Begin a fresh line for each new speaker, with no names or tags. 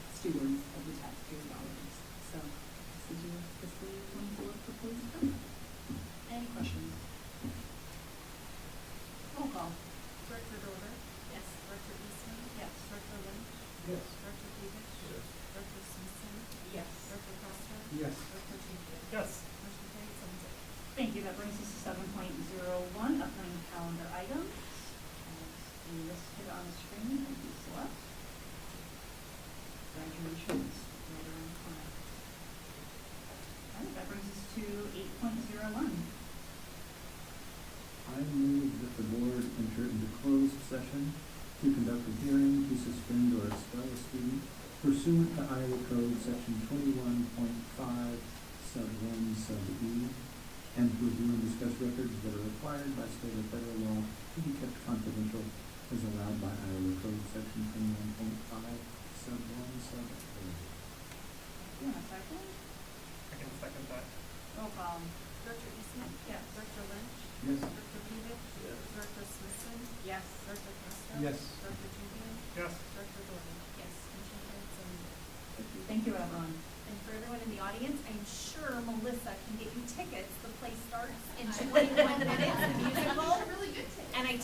eight point zero one.
I move that the board enter into closed session to conduct a hearing to suspend or expel a student pursuant to Iowa Code Section twenty-one point five, sub one, sub E, and to review and discuss records that are required by state or federal law to be kept confidential as allowed by Iowa Code Section twenty-one point five, sub one, sub E. A.
Do you want a second?
I can second that.
Roll call.
Director Eastman?
Yes.
Director Lynch?
Yes.
Director Peters?
Yes.
Director Smithson?
Yes.
Director Castro?
Yes.
Director Julian?
Yes.
Director Gordon? Yes. Motion carries seven zero.
Thank you, everyone.
And for everyone in the audience, I'm sure Melissa can get you